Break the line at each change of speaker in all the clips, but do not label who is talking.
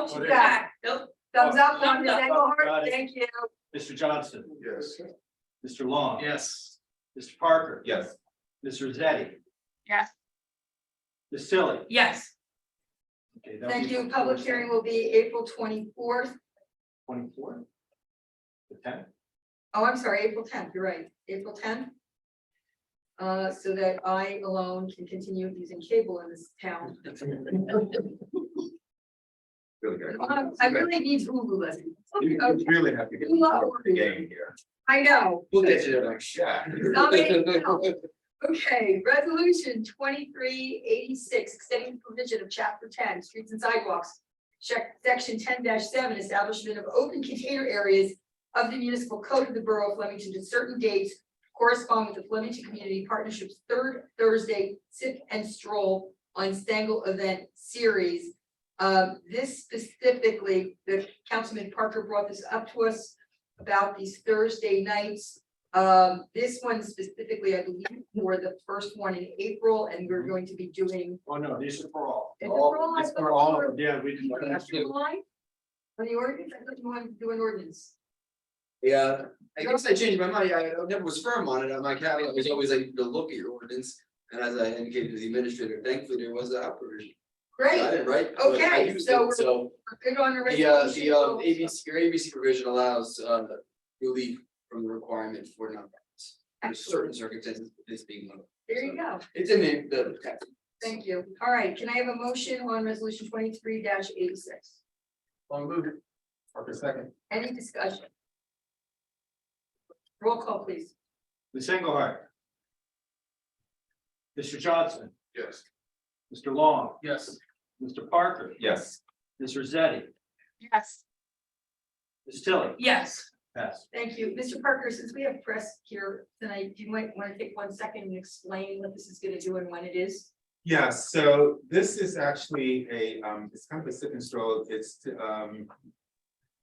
what you got?
Nope.
Thumbs up,
Thumbs
Mrs.
up.
Engelhardt,
Got it.
thank you.
Mr. Johnson,
Yes.
Mr. Long.
Yes.
Mr. Parker.
Yes.
Ms. Rosetti,
Yes.
Ms. Silly.
Yes,
Okay, that'll
Thank
be
you.
for
Public
Thursday,
hearing will be April twenty-fourth.
Twenty-four. The tenth,
Oh, I'm sorry, April tenth, you're right, April tenth. Uh, so that I alone can continue using cable in this town.
Really
Uh, I really need Hulu listen.
You you really have to get.
You love
into the Game here.
I know.
We'll get you there. Yeah.
Somebody help. Okay, resolution twenty-three eighty-six, extending the provision of chapter ten, streets and sidewalks. Check section ten seven, establishment of open container areas of the municipal code of the borough of Flemington to certain dates. Correspond with the Flemington Community Partnership's third Thursday sip and stroll on Stangle Event Series. Um, this specifically, the Councilman Parker brought this up to us about these Thursday nights. Um, this one specifically, I believe, for the first one in April, and we're going to be doing.
oh no, these are for all.
Is it
All-
for all? I
it's
thought
For all,
we
of them. yeah, we just.
July? On the ordinance, I thought you wanted to do an ordinance.
Yeah, I guess I changed my mind, I I never was firm on it, on my caveat was always I need to look at your ordinance. And as I indicated to the administrator, thankfully there was that provision, I
Great,
didn't write, but I
Okay,
used
so
it, so.
we're good on the
The uh,
resolution.
the um ABC, your ABC provision allows uh relief from the requirement for nonprofits. Under certain circumstances, this being one of them,
There you go.
it's in the the text.
Thank you. All right, can I have a motion on resolution twenty-three eighty-six?
Long move it. Parker second.
Any discussion? Roll call, please.
Ms. Engelhardt. Mr. Johnson,
Yes.
Mr. Long,
Yes.
Mr. Parker,
Yes.
Ms. Rosetti,
yes,
Ms. Tilly,
yes,
pass.
Thank you. Mr. Parker, since we have press here tonight, you might want to take one second and explain what this is gonna do and when it is.
Yeah, so this is actually a, um, it's kind of a sip and stroll, it's, to, um.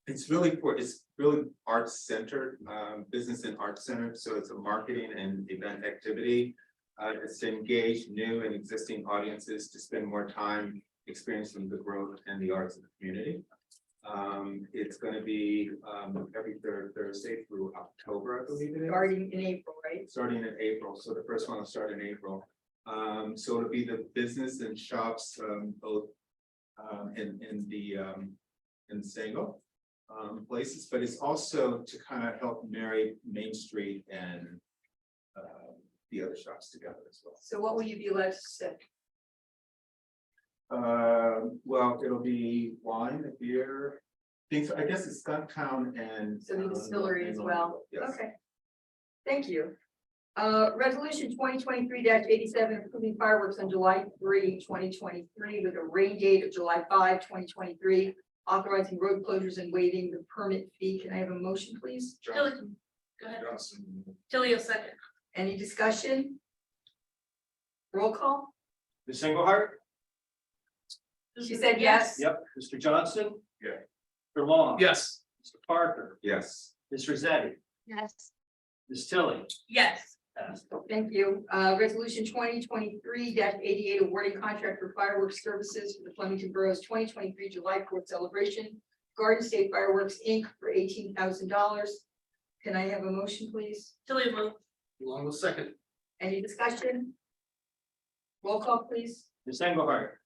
It's really for, it's really arts centered, um, business and arts centered, so it's a marketing and event activity. Uh, it's to engage new and existing audiences to spend more time experiencing the growth and the arts of the community. Um, it's gonna be, um, every third Thursday through October, I believe it is
Starting in April, right?
starting in April, so the first one will start in April. Um, so it'll be the business and shops, um, both, um, in, in the, um, in Sango. Um, places, but it's also to kind of help marry Main Street and, uh, the other shops together as well.
So what will you be allowed to say?
Uh, well, it'll be wine, beer, things, I guess it's Stumptown and.
So the
um,
distillery as
and-
well.
Yes.
Okay. Thank you. Uh, resolution twenty twenty-three eighty-seven, approving fireworks on July 3, 2023, with a rain date of July 5, 2023, Authorizing road closures and waiving the permit fee. Can I have a motion, please?
Tilly,
Johnson,
go ahead,
Johnson,
Tilly will second,
Any discussion? Roll call?
Ms. Engelhardt?
She said yes.
Yep. Mr. Johnson?
Yeah.
Mr. Long?
Yes.
Mr. Parker,
yes.
Ms. Rosetti,
yes,
Ms. Tilly,
yes,
pass.
Thank you. Uh, resolution twenty twenty-three eighty-eight, awarding contract for fireworks services for the Flemington Borough's twenty twenty-three July Fourth celebration. Garden State Fireworks, Inc. for eighteen thousand dollars. Can I have a motion, please?
Tilly will,
Long will second.
Any discussion? Roll call, please.
Ms. Engelhardt?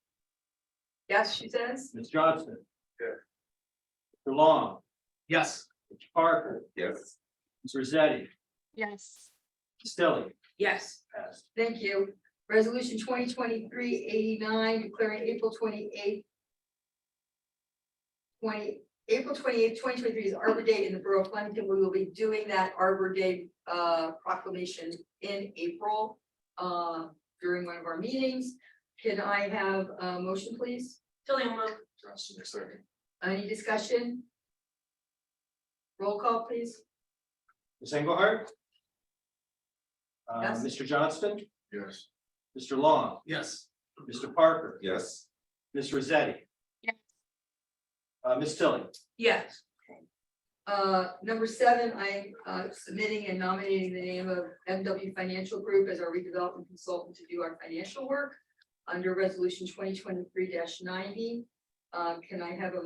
Yes, she says.
Ms. Johnson?
Yeah.
Mr. Long,
Yes.
Mr. Parker,
Yes.
Ms. Rosetti,
yes,
Ms. Tilly,
yes,
pass.
Thank you. Resolution 2023-89 declaring April twenty-eighth. Twenty, April twenty-eighth, twenty twenty-three is Arbor Day in the Borough of Flemington. We will be doing that Arbor Day uh, proclamation in April. uh, during one of our meetings. Can I have a motion, please?
Tilly will,
Johnson will second.
Any discussion? Roll call, please.
Ms. Engelhardt? Uh,
Yes.
Mr. Johnston,
Yes.
Mr. Long,
Yes.
Mr. Parker,
Yes.
Ms. Rosetti,
yes,
uh, Ms. Tilly,
yes,
Uh, number seven, I'm uh, submitting and nominating the name of MW Financial Group as our redevelopment consultant to do our financial work under resolution twenty twenty-three ninety. Uh, can I have a